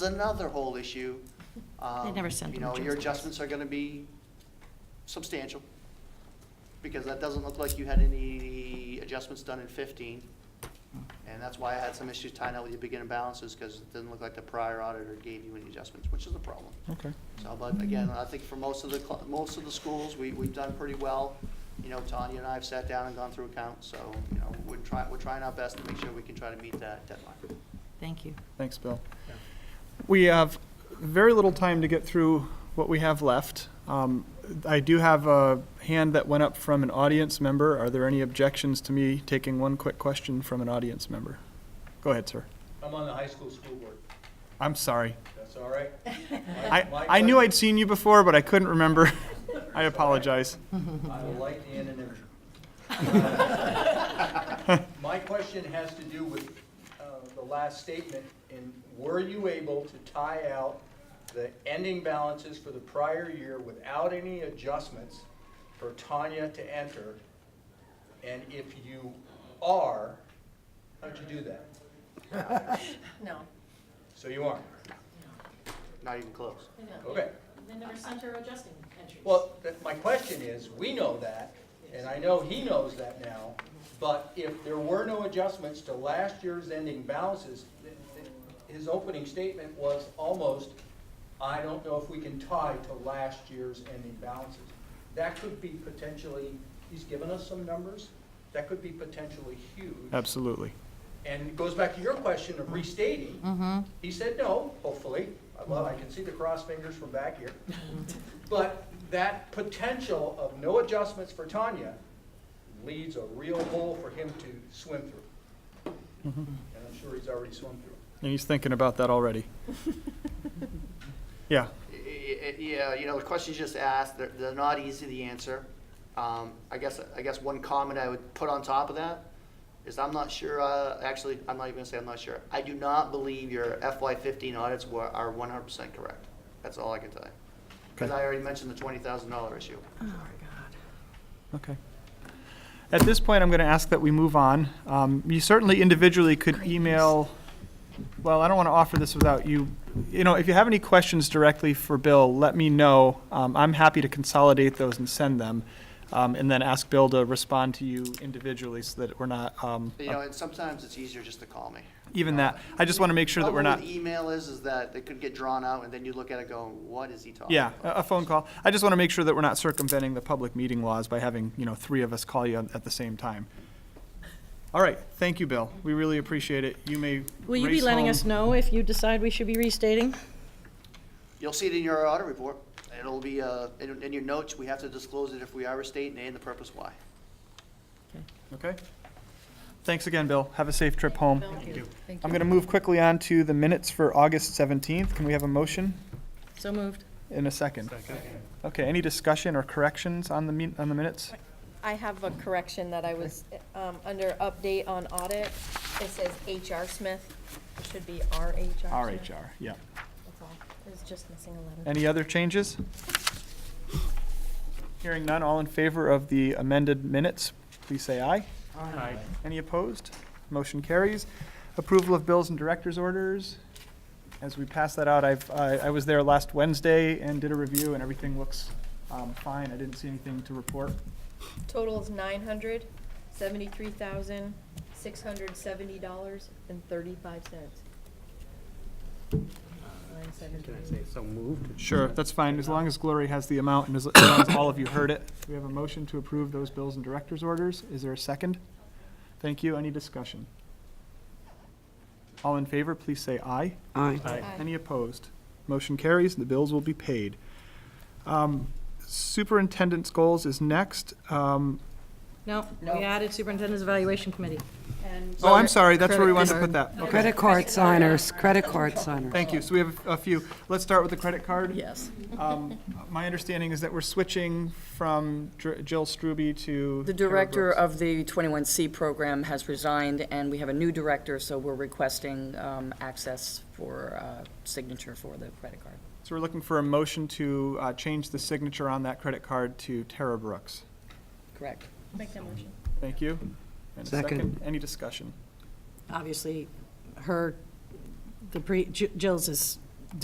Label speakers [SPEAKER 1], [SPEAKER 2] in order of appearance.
[SPEAKER 1] is another whole issue. Um,
[SPEAKER 2] never sent them
[SPEAKER 1] You know, your
[SPEAKER 2] adjustments.
[SPEAKER 1] adjustments are gonna be substantial, because that doesn't look like you had any adjustments done in fifteen. And that's why I had some issues tying up with your beginning balances, because it didn't look like the prior auditor gave you any adjustments, which is a problem.
[SPEAKER 3] Okay.
[SPEAKER 1] So, but again, I think for most of the, cl- most of the schools, we, we've done pretty well. You know, Tanya and I have sat down and gone through accounts, so, you know, we're trying, we're trying our best to make sure we can try to meet that deadline.
[SPEAKER 2] Thank you.
[SPEAKER 3] Thanks, Bill. We have very little time to get through what we have left. Um, I do have a hand that went up from an audience member. Are there any objections to me taking one quick question from an audience member? Go ahead, sir.
[SPEAKER 4] I'm on the high school school board,
[SPEAKER 3] I'm sorry.
[SPEAKER 4] that's all right?
[SPEAKER 3] I, I knew I'd seen you before, but I couldn't remember. I apologize.
[SPEAKER 4] I like the anonymity. My question has to do with uh, the last statement, and were you able to tie out the ending balances for the prior year without any adjustments for Tanya to enter? And if you are, how'd you do that?
[SPEAKER 5] No,
[SPEAKER 4] So you aren't,
[SPEAKER 1] Not even close.
[SPEAKER 5] no.
[SPEAKER 4] okay.
[SPEAKER 5] They never sent her adjusting entries.
[SPEAKER 4] Well, th- my question is, we know that, and I know he knows that now, but if there were no adjustments to last year's ending balances, th- th- his opening statement was almost, I don't know if we can tie to last year's ending balances. That could be potentially, he's given us some numbers, that could be potentially huge.
[SPEAKER 3] Absolutely.
[SPEAKER 4] And it goes back to your question of restating. He said no, hopefully. Well, I can see the cross fingers from back here. But that potential of no adjustments for Tanya leaves a real hole for him to swim through. And I'm sure he's already swum through.
[SPEAKER 3] And he's thinking about that already. Yeah,
[SPEAKER 1] Y- y- Yeah, you know, the questions you just asked, they're, they're not easy to answer. Um, I guess, I guess one comment I would put on top of that is I'm not sure, uh, actually, I'm not even gonna say I'm not sure. I do not believe your FY fifteen audits were, are one hundred percent correct. That's all I can tell you. Cause
[SPEAKER 3] Okay.
[SPEAKER 1] I already mentioned the twenty thousand dollar issue.
[SPEAKER 3] okay. At this point, I'm going to ask that we move on. Um, You certainly individually could email, well, I don't want to offer this without you, you know, if you have any questions directly for Bill, let me know. Um, I'm happy to consolidate those and send them, um, and then ask Bill to respond to you individually so that we're not, um,
[SPEAKER 1] You know, and sometimes it's easier just to call me.
[SPEAKER 3] even that. I just want to make sure that we're
[SPEAKER 1] Problem with
[SPEAKER 3] not.
[SPEAKER 1] Email is, is that it could get drawn out and then you look at it going, what is he talking
[SPEAKER 3] Yeah,
[SPEAKER 1] about?
[SPEAKER 3] a a phone call. I just want to make sure that we're not circumventing the public meeting laws by having, you know, three of us call you at the same time. All right, thank you, Bill. We really appreciate it. You may
[SPEAKER 6] Will you be
[SPEAKER 3] race
[SPEAKER 6] letting
[SPEAKER 3] home.
[SPEAKER 6] us know if you decide we should be restating?
[SPEAKER 1] You'll see it in your audit report. It'll be, uh, in, in your notes, we have to disclose it if we are a state and the purpose why.
[SPEAKER 3] Okay? Thanks again, Bill. Have a safe trip home.
[SPEAKER 6] Thank you.
[SPEAKER 3] I'm going to move quickly on to the minutes for August 17th. Can we have a motion
[SPEAKER 6] So moved.
[SPEAKER 3] in a second? Okay, any discussion or corrections on the, min- on the minutes?
[SPEAKER 7] I have a correction that I was, um, under update on audit, it says HR Smith, it should be RHR Smith.
[SPEAKER 3] RHR, yeah.
[SPEAKER 7] That's all, it was just missing a letter.
[SPEAKER 3] Any other changes? Hearing none, all in favor of the amended minutes, please say aye. Aye. Any opposed? Motion carries. Approval of bills and director's orders. As we pass that out, I've, I I was there last Wednesday and did a review, and everything looks um, fine. I didn't see anything to report.
[SPEAKER 7] Total is nine hundred, seventy-three thousand, six hundred seventy dollars and thirty-five cents. Nine seventy-three.
[SPEAKER 3] Sure, that's fine, as long as Glory has the amount and as as long as all of you heard it. We have a motion to approve those bills and director's orders. Is there a second? Thank you. Any discussion? All in favor, please say aye.
[SPEAKER 7] Aye.
[SPEAKER 3] Any opposed? Motion carries, the bills will be paid. Um, Superintendent's goals is next. Um,
[SPEAKER 6] No, we added superintendent's evaluation committee.
[SPEAKER 3] Oh, I'm sorry, that's where we wanted to put that. Okay,
[SPEAKER 8] Credit card signers, credit card signers.
[SPEAKER 3] thank you. So we have a few. Let's start with the credit card.
[SPEAKER 6] Yes.
[SPEAKER 3] Um, My understanding is that we're switching from Dr- Jill Strube to.
[SPEAKER 8] The
[SPEAKER 3] Carol
[SPEAKER 8] director
[SPEAKER 3] Brooks.
[SPEAKER 8] of the 21C program has resigned, and we have a new director, so we're requesting um, access for uh, signature for the credit card.
[SPEAKER 3] So we're looking for a motion to uh, change the signature on that credit card to Tara Brooks.
[SPEAKER 8] Correct.
[SPEAKER 7] Make that motion.
[SPEAKER 3] Thank you. And a
[SPEAKER 8] Second.
[SPEAKER 3] Any discussion?
[SPEAKER 6] Obviously, her, the pre, Ju- Jill's is